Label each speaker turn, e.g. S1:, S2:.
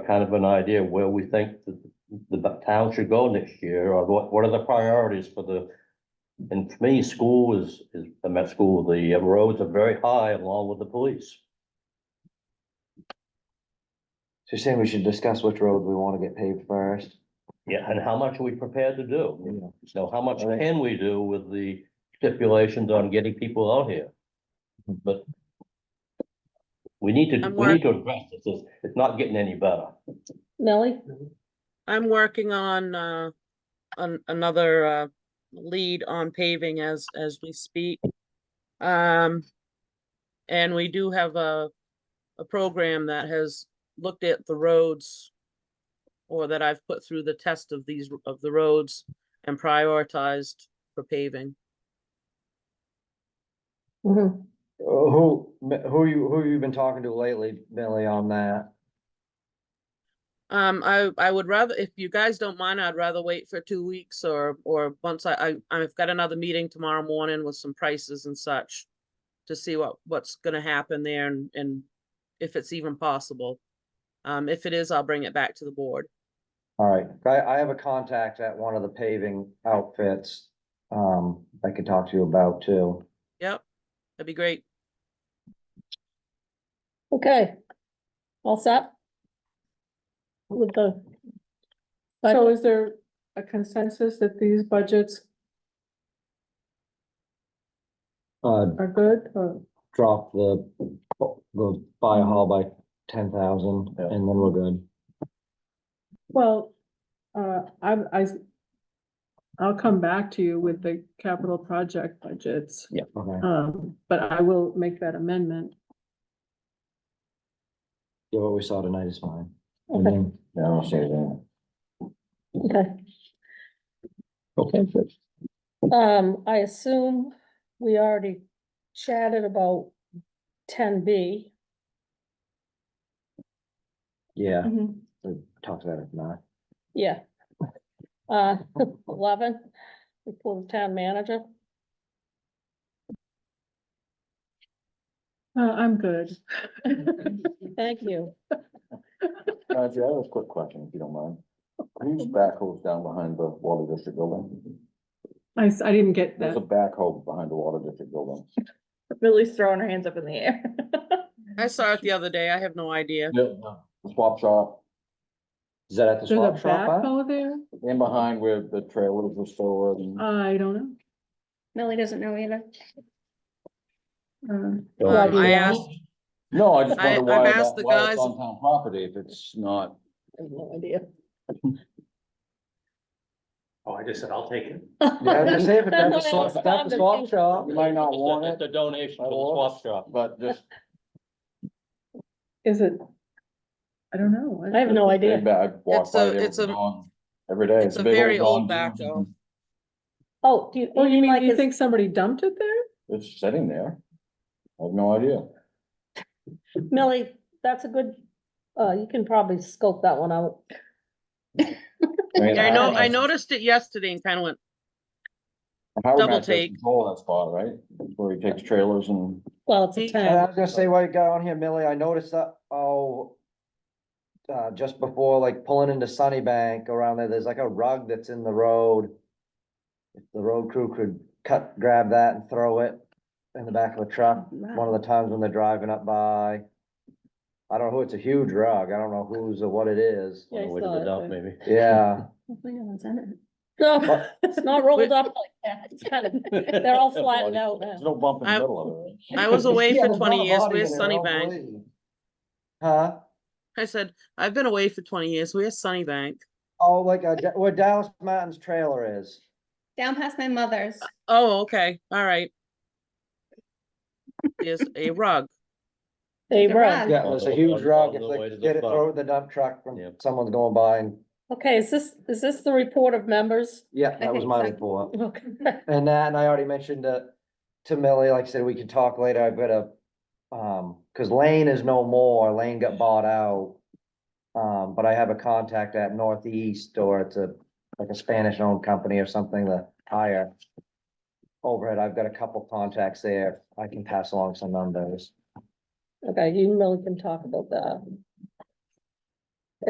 S1: kind of an idea where we think the, the town should go next year, or what, what are the priorities for the? And for me, school is, is, I'm at school, the roads are very high along with the police.
S2: you're saying we should discuss which road we wanna get paved first?
S1: Yeah, and how much are we prepared to do?
S2: Yeah.
S1: So how much
S2: Right.
S1: can we do with the stipulations on getting people out here? But we need to,
S3: I'm
S1: we need to address this, it's, it's not getting any better.
S4: Millie?
S3: I'm working on, uh, an another, uh, lead on paving as, as we speak. Um, and we do have a, a program that has looked at the roads or that I've put through the test of these, r- of the roads and prioritized for paving.
S2: Mm-hmm.
S4: Mhm.
S2: Uh, Who, who you, who you been talking to lately, Billy, on that?
S3: Um, I, I would rather, if you guys don't mind, I'd rather wait for two weeks or, or once I, I, I've got another meeting tomorrow morning with some prices and such. To see what, what's gonna happen there and, and if it's even possible. Um, if it is, I'll bring it back to the board.
S2: All right, I, I have a contact at one of the paving outfits, um, I could talk to you about too.
S3: Yep, that'd be great.
S4: Okay. All set? With the.
S5: So is there a consensus that these budgets
S2: Uh,
S5: are good or?
S2: drop the, the fire hall by ten thousand
S1: Yeah.
S2: and then we're good.
S5: Well, uh, I, I, s- I'll come back to you with the capital project budgets.
S2: Okay,
S5: Um, but I will make that amendment.
S2: yeah, what we saw tonight is fine.
S4: Okay.
S2: Yeah, I'll say that.
S4: Okay,
S2: Okay, good.
S4: um, I assume we already chatted about ten B.
S2: Yeah, we talked about it now.
S4: Yeah. Uh, eleven, we pull the town manager.
S5: Uh, I'm good.
S4: Thank you.
S6: Roger, I have a quick question, if you don't mind. Whose backhoe's down behind the water district building?
S5: I, s- I didn't get
S6: There's
S5: that.
S6: a backhoe behind the water district building.
S7: Lily's throwing her hands up in the air.
S3: I saw it the other day. I have no idea.
S6: The swap shop
S2: Is that at the
S5: There's
S2: swap
S5: a
S2: shop? huh?
S5: backhoe there?
S6: and behind where the trailers were stored and
S3: Uh,
S5: I don't
S7: Millie doesn't know either.
S5: know.
S3: Um, I asked,
S6: No, I just
S3: I-
S6: wonder
S3: I've
S6: why that,
S3: asked the
S6: why it's
S3: guys-
S6: on town property if it's not.
S4: I have no idea.
S1: Oh, I just said, I'll take it.
S2: Yeah, I was gonna say, if it's at the
S4: That's what I
S2: swap, it's at the swap
S4: responded
S2: shop.
S6: You might not want
S1: It's
S6: it,
S1: a donation to the swap shop.
S6: but just.
S5: Is it? I don't know.
S4: I have no idea.
S6: I walk
S3: It's
S6: by
S3: a-
S6: there
S3: it's
S6: with
S3: a-
S6: Dawn every day.
S3: it's a
S6: big
S3: very old
S6: Dawn
S3: backhoe.
S6: Jones.
S4: Oh, do you,
S5: Oh, you
S4: mean
S5: mean,
S4: like,
S5: you
S4: is-
S5: think somebody dumped it there?
S6: It's sitting there. I have no idea.
S4: Millie, that's a good, uh, you can probably scope that one out.
S6: mean,
S3: Yeah, I know,
S6: don't
S3: I noticed it yesterday and kind of went,
S6: Howard
S3: double
S6: Mack does
S3: take.
S6: Control that spot, right? Where he takes trailers and
S4: Well, it's a
S3: He-
S2: And I
S4: town.
S2: was gonna say, while you got on here, Millie, I noticed that, oh, uh, just before, like pulling into Sunnybank around there, there's like a rug that's in the road. If the road crew could cut, grab that and throw it in the back of a truck, one of the times when they're driving up by. I don't know who, it's a huge rug, I don't know whose or what it is,
S1: On the
S4: Yeah, I
S1: way to the
S4: saw it,
S1: dump,
S4: but-
S1: maybe.
S2: yeah.
S4: No, It's not rolled up like that. It's kind of, they're all flattened out
S6: there's
S4: now.
S6: no bump in the
S3: I-
S6: middle of it. right?
S3: I was away
S2: Yeah,
S3: for
S2: there's not a
S3: twenty years.
S2: body
S3: Where's
S2: in it, I don't
S3: Sunnybank?
S2: believe. Huh?
S3: I said, I've been away for twenty years. Where's Sunnybank?
S2: Oh, like, uh, Da- where Dallas Martin's trailer is.
S7: Down past my mother's.
S3: Oh, okay, all right. There's a rug.
S4: They
S7: The
S4: run.
S7: rug.
S2: Yeah, it's a huge rug,
S1: On the Oh, way to
S2: if
S1: the
S2: they get it,
S1: dump.
S2: throw it in the dump truck when
S1: Yep.
S2: someone's going by and,
S4: Okay, is this, is this the report of members?
S2: yeah, that was
S7: think
S2: my
S7: so.
S2: report.
S4: Okay.
S2: And that, and I already mentioned to, to Millie, like I said, we can talk later, I've got a, um, cause Lane is no more, Lane got bought out. Um, but I have a contact at Northeast, or it's a, like a Spanish-owned company or something, the higher overhead, I've got a couple contacts there, I can pass along some numbers.
S4: Okay, you and Millie can talk about that.